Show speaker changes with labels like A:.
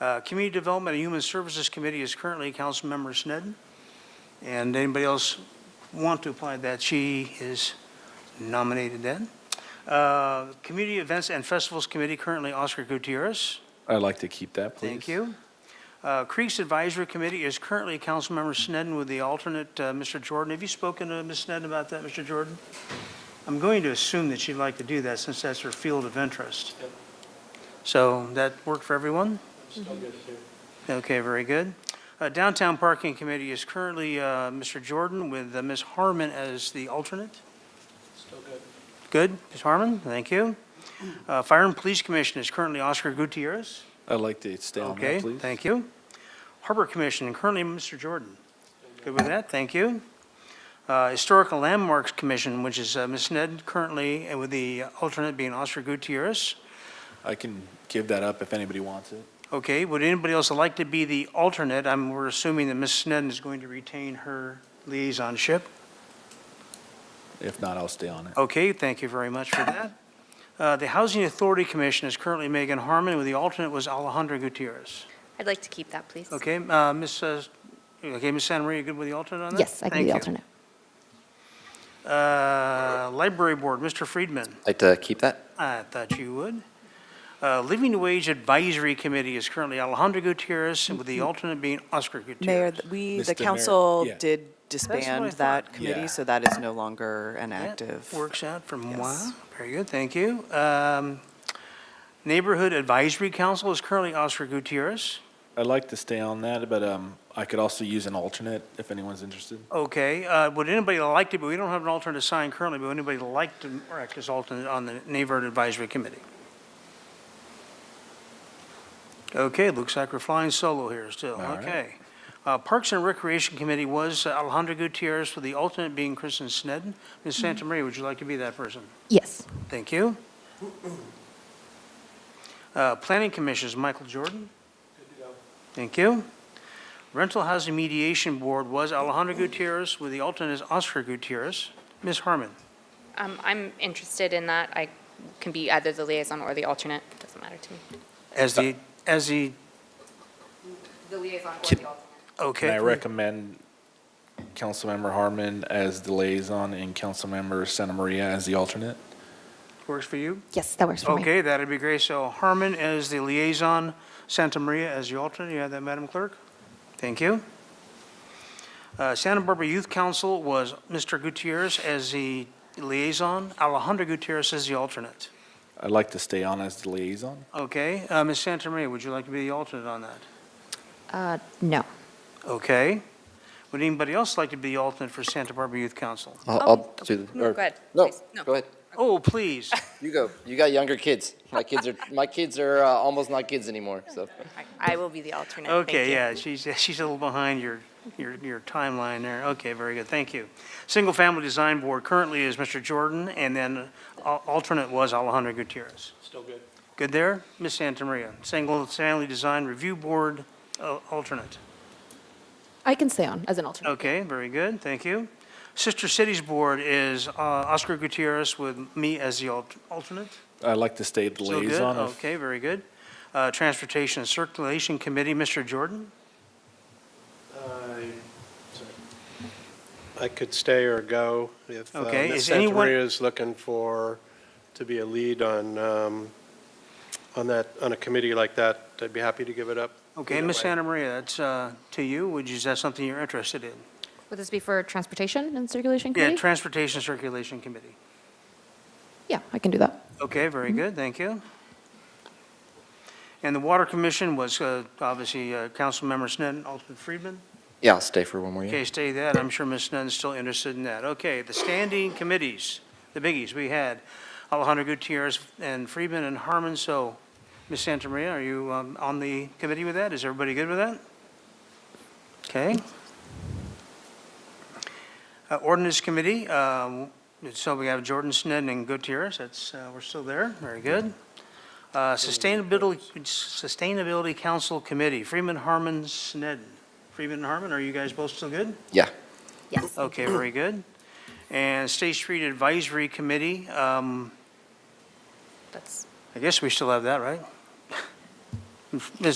A: Uh, Community Development and Human Services Committee is currently Councilmember Snedden. And anybody else want to apply that, she is nominated then. Uh, Community Events and Festivals Committee, currently Oscar Gutierrez.
B: I'd like to keep that, please.
A: Thank you. Uh, Creeks Advisory Committee is currently Councilmember Snedden with the alternate, uh, Mr. Jordan. Have you spoken to Ms. Snedden about that, Mr. Jordan? I'm going to assume that she'd like to do that since that's her field of interest. So that worked for everyone?
C: Mm-hmm.
A: Okay, very good. Uh, Downtown Parking Committee is currently uh, Mr. Jordan with uh, Ms. Harmon as the alternate. Still good. Good, Ms. Harmon, thank you. Uh, Fire and Police Commission is currently Oscar Gutierrez.
B: I'd like to stay on that,
A: Okay,
B: please.
A: thank you. Harbor Commission, currently Mr. Jordan. Good with that, thank you. Uh, Historical Landmarks Commission, which is uh, Ms. Ned currently, and with the alternate being Oscar Gutierrez.
B: I can give that up if anybody wants it.
A: Okay, would anybody else like to be the alternate? I'm, we're assuming that Ms. Ned is going to retain her liaisonship.
B: If not, I'll stay on it.
A: Okay, thank you very much for that. Uh, The Housing Authority Commission is currently Megan Harmon, with the alternate was Alejandra Gutierrez.
C: I'd like to keep that, please.
A: Okay, uh, Ms., uh, okay, Ms. Santa Maria, you good with the alternate on that?
D: Yes, I can be the
A: Thank you.
D: alternate.
A: Uh, Library Board, Mr. Friedman,
E: Like to keep that?
A: I thought you would. Uh, Living Wage Advisory Committee is currently Alejandro Gutierrez, with
D: Mm-hmm.
A: the alternate being Oscar
F: Mayor,
A: Gutierrez.
F: th- we, the
B: Mr. Mayor,
F: council
B: yeah.
F: did
A: what I
F: disband
A: thought.
F: that
B: Yeah.
F: committee, so that is no longer an
A: That
F: active.
A: Works out for moi.
F: Yes.
A: Very good, thank you. Um, Neighborhood Advisory Council is currently Oscar Gutierrez.
B: I'd like to stay on that, but um, I could also use an alternate if anyone's interested.
A: Okay, uh, would anybody like to, be? we don't have an alternate assigned currently, but would anybody like to act as alternate on the Neighborhood Advisory Committee? Okay, looks like we're flying solo here still,
B: All right.
A: okay. Uh, Parks and Recreation Committee was Alejandro Gutierrez, with the alternate being Kristen Snedden. Ms. Santa Maria, would you like to be that person?
D: Yes,
A: Thank you. Uh, Planning Commission is Michael Jordan. Thank you. Rental Housing Mediation Board was Alejandro Gutierrez, with the alternate is Oscar Gutierrez. Ms. Harmon,
C: Um, I'm interested in that. I can be either the liaison or the alternate. Doesn't matter to me.
A: as the, as the,
C: The liaison or
B: Can-
C: alternate.
A: okay.
B: And I recommend Councilmember Harmon as the liaison and Councilmember Santa Maria as the alternate.
A: Works for you?
D: yes, that works for me.
A: Okay, that'd be great. So Harmon as the liaison, Santa Maria as the alternate. You have that, Madam Clerk? Thank you. Uh, Santa Barbara Youth Council was Mr. Gutierrez as the liaison, Alejandro Gutierrez as the alternate.
B: I'd like to stay on as the liaison.
A: Okay, uh, Ms. Santa Maria, would you like to be the alternate on that?
D: Uh, No,
A: Okay. Would anybody else like to be the alternate for Santa Barbara Youth Council?
E: I'll,
C: Oh,
E: I'll do.
C: no,
E: or-
C: go ahead,
E: No,
C: please. No.
E: go ahead.
A: Oh, please.
E: You go. You got younger kids. My kids are, my kids are uh, almost not kids anymore, so.
C: I I will be the alternate. Thank
A: Okay,
C: you.
A: yeah, she's, she's a little behind your, your, your timeline there. Okay, very good, thank you. Single Family Design Board currently is Mr. Jordan, and then al- alternate was Alejandro Gutierrez. Still good. Good there? Ms. Santa Maria, Single Family Design Review Board, uh, alternate.
D: I can stay on as an alternate.
A: Okay, very good, thank you. Sister Cities Board is uh, Oscar Gutierrez with me as the al- alternate.
B: I'd like to stay the
A: Still good?
B: liaison. if-
A: Okay, very good. Uh, Transportation and Circulation Committee, Mr. Jordan?
G: I Uh, sorry. I could stay or go if uh,
A: Okay,
G: Ms.
A: is anyone-
G: Santamaria is looking for, to be a lead on, um, on that, on a committee like that. I'd be happy to give it up.
A: Okay,
G: Either
A: Ms.
G: way.
A: Santa Maria, that's uh, to you. Would you, is that something you're interested in?
D: Would this be for Transportation and Circulation
A: Yeah,
D: Committee?
A: Transportation Circulation Committee.
D: Yeah, I can do that.
A: Okay, very good, thank you. And the Water Commission was uh, obviously uh, Councilmember Sneddon, Alderman Friedman.
E: Yeah, I'll stay for one more year.
A: Okay, stay that. I'm sure Ms. Nunn's still interested in that. Okay, the standing committees, the biggies, we had Alejandro Gutierrez and Friedman and Harmon, so Ms. Santa Maria, are you um, on the committee with that? Is everybody good with that? Okay. Uh, Ordinance Committee, um, so we have Jordan Snedden and Gutierrez, that's, uh, we're still there, very good. Uh, Sustainability, Sustainability Council Committee, Freeman, Harmon, Snedden. Freeman and Harmon, are you guys both still good?
E: Yeah.
D: Yes.
A: Okay, very good. And State Street Advisory Committee, um,
C: That's
A: I guess we still have that, right? Ms.